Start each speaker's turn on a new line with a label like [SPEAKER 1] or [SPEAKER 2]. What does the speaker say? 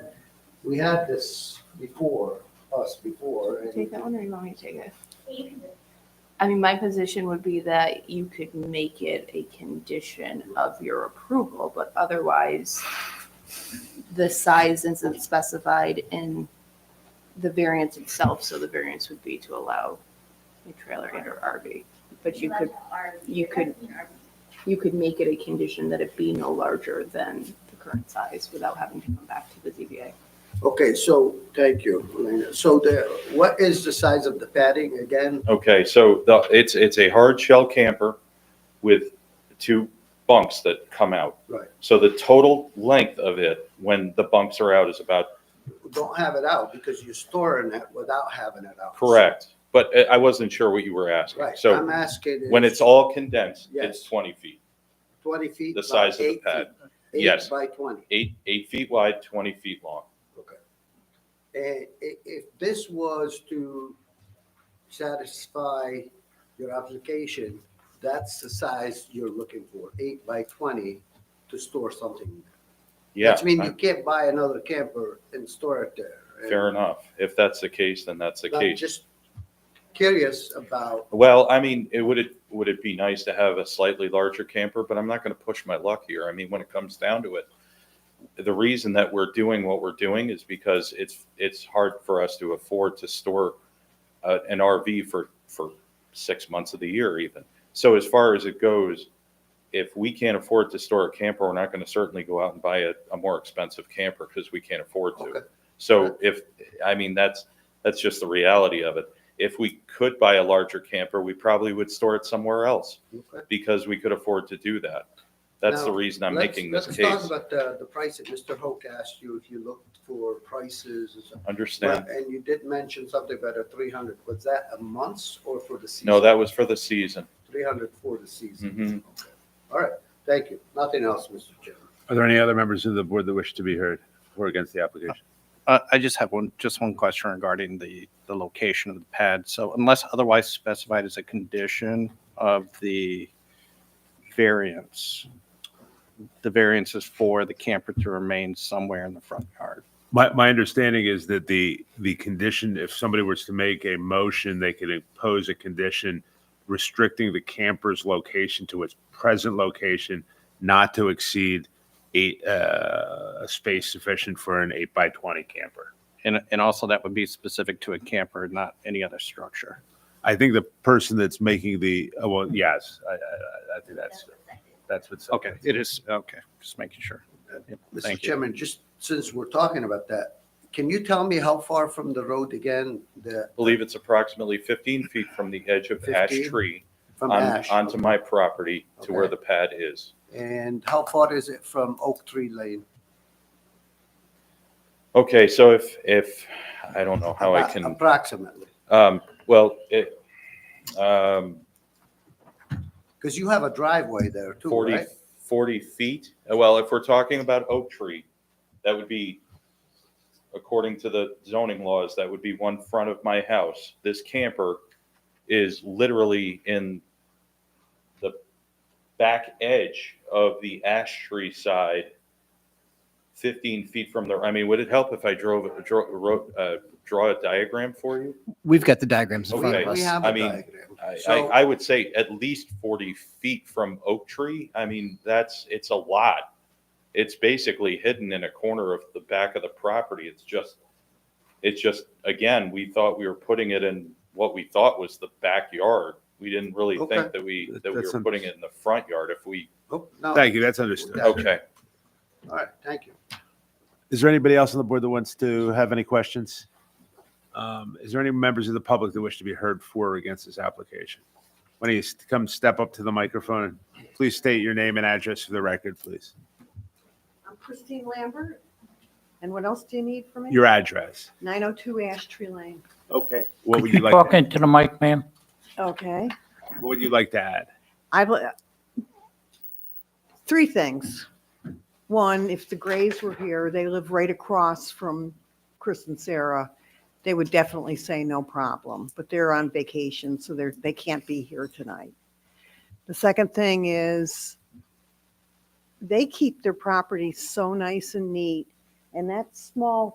[SPEAKER 1] we had this before, us before, and
[SPEAKER 2] Take that one or you want me to take it?
[SPEAKER 3] You can do it.
[SPEAKER 2] I mean, my position would be that you could make it a condition of your approval, but otherwise the size isn't specified in the variance itself, so the variance would be to allow a trailer and or RV. But you could, you could- you could make it a condition that it be no larger than the current size without having to come back to the ZBA.
[SPEAKER 1] Okay, so, thank you, Elena. So the, what is the size of the padding again?
[SPEAKER 4] Okay, so the, it's, it's a hard shell camper with two bumps that come out.
[SPEAKER 1] Right.
[SPEAKER 4] So the total length of it, when the bumps are out, is about,
[SPEAKER 1] Don't have it out because you're storing it without having it out.
[SPEAKER 4] correct, but I- I wasn't sure what you were asking.
[SPEAKER 1] Right, I'm
[SPEAKER 4] So
[SPEAKER 1] asking.
[SPEAKER 4] when
[SPEAKER 1] is
[SPEAKER 4] it's all condensed,
[SPEAKER 1] Yes.
[SPEAKER 4] it's twenty feet,
[SPEAKER 1] Twenty feet.
[SPEAKER 4] the
[SPEAKER 1] by
[SPEAKER 4] size of the
[SPEAKER 1] eight feet.
[SPEAKER 4] pad.
[SPEAKER 1] Eight
[SPEAKER 4] Yes.
[SPEAKER 1] By twenty.
[SPEAKER 4] eight, eight feet wide, twenty feet long.
[SPEAKER 1] And i- if this was to satisfy your application, that's the size you're looking for, eight by twenty to store something.
[SPEAKER 4] Yeah,
[SPEAKER 1] Which means you
[SPEAKER 4] I-
[SPEAKER 1] can't buy another camper and store it there. And
[SPEAKER 4] fair enough. If that's the case, then that's the
[SPEAKER 1] I'm
[SPEAKER 4] case.
[SPEAKER 1] just curious about,
[SPEAKER 4] Well, I mean, it would it would it be nice to have a slightly larger camper, but I'm not going to push my luck here. I mean, when it comes down to it, the reason that we're doing what we're doing is because it's it's hard for us to afford to store uh, an RV for for six months of the year even. So as far as it goes, if we can't afford to store a camper, we're not going to certainly go out and buy a, a more expensive camper because we can't afford to.
[SPEAKER 1] Okay.
[SPEAKER 4] So if I mean that's that's just the reality of it if we could buy a larger camper, we probably would store it somewhere else
[SPEAKER 1] okay.
[SPEAKER 4] because we could afford to do that. That's the
[SPEAKER 1] Now,
[SPEAKER 4] reason I'm
[SPEAKER 1] Let's-
[SPEAKER 4] making this
[SPEAKER 1] Let's
[SPEAKER 4] case.
[SPEAKER 1] talk about the, the price that Mr. Hoke asked you, if you looked for prices and stuff.
[SPEAKER 4] Understand?
[SPEAKER 1] And you did mention something about a three hundred, was that a month or for the season?
[SPEAKER 4] No, that was for the season.
[SPEAKER 1] Three hundred for the season.
[SPEAKER 4] Mhm.
[SPEAKER 1] Okay. All right, thank you. Nothing else, Mr. Chairman.
[SPEAKER 5] Are there any other members of the board that wish to be heard for or against the application?
[SPEAKER 6] Uh, I just have one, just one question regarding the, the location of the pad. So unless otherwise specified as a condition of the variance, the variance is for the camper to remain somewhere in the front yard.
[SPEAKER 5] My, my understanding is that the, the condition, if somebody was to make a motion, they could impose a condition restricting the camper's location to its present location, not to exceed eight, uh, a space sufficient for an eight by 20 camper.
[SPEAKER 6] And, and also that would be specific to a camper, not any other structure.
[SPEAKER 5] I think the person that's making the, oh, well, yes, I, I, I- I think that's, that's what's.
[SPEAKER 6] Okay, it is, okay, just making sure.
[SPEAKER 1] Mr.
[SPEAKER 6] Thank you.
[SPEAKER 1] Chairman, just since we're talking about that, can you tell me how far from the road again, the,
[SPEAKER 4] I believe it's approximately 15 feet from the edge of ash
[SPEAKER 1] 15?
[SPEAKER 4] tree
[SPEAKER 1] from
[SPEAKER 4] on-
[SPEAKER 1] Ash?
[SPEAKER 4] onto my property to where
[SPEAKER 1] Okay.
[SPEAKER 4] the pad is.
[SPEAKER 1] And how far is it from Oak Tree Lane?
[SPEAKER 4] Okay, so if, if, I don't know how I
[SPEAKER 1] About-
[SPEAKER 4] can,
[SPEAKER 1] Approximately,
[SPEAKER 4] um, well, it, um,
[SPEAKER 1] because you have a driveway there too,
[SPEAKER 4] 40,
[SPEAKER 1] right?
[SPEAKER 4] 40 feet. Uh, Well, if we're talking about oak tree, that would be, according to the zoning laws, that would be one front of my house. This camper is literally in the back edge of the ash tree side, 15 feet from there. I mean, would it help if I drove, draw, wrote, uh, draw a diagram for you?
[SPEAKER 7] We've got the diagrams in front
[SPEAKER 4] Okay.
[SPEAKER 7] of us.
[SPEAKER 1] We have
[SPEAKER 4] I
[SPEAKER 1] a
[SPEAKER 4] mean,
[SPEAKER 1] diagram.
[SPEAKER 4] I,
[SPEAKER 1] So-
[SPEAKER 4] I, I would say at least 40 feet from oak tree. I mean, that's, it's a lot. It's basically hidden in a corner of the back of the property. It's just, it's just, again, we thought we were putting it in what we thought was the backyard. We didn't really
[SPEAKER 1] Okay.
[SPEAKER 4] think that we, that we
[SPEAKER 5] That's
[SPEAKER 4] were
[SPEAKER 5] un-
[SPEAKER 4] putting it in the front yard if we,
[SPEAKER 1] Oh, no, all
[SPEAKER 5] Thank you, that's understood.
[SPEAKER 1] Yeah.
[SPEAKER 4] okay.
[SPEAKER 1] right, thank you.
[SPEAKER 5] Is there anybody else on the board that wants to have any questions? Um, Is there any members of the public that wish to be heard for or against this application? Why don't you s- come step up to the microphone? and Please state your name and address for the record, please.
[SPEAKER 8] I'm Christine Lambert. And what else do you need from me?
[SPEAKER 5] Your address.
[SPEAKER 8] 902 Ash Tree Lane.
[SPEAKER 5] Okay. What would you
[SPEAKER 7] Could you
[SPEAKER 5] like,
[SPEAKER 7] talk
[SPEAKER 5] to-
[SPEAKER 7] into the mic, ma'am?
[SPEAKER 8] Okay.
[SPEAKER 5] what would you like to add?
[SPEAKER 8] I've, uh, three things. One, if the Grays were here, they live right across from Chris and Sarah, they would definitely say no problem, but they're on vacation, so they're, they can't be here tonight. The second thing is they keep their property so nice and neat, and that small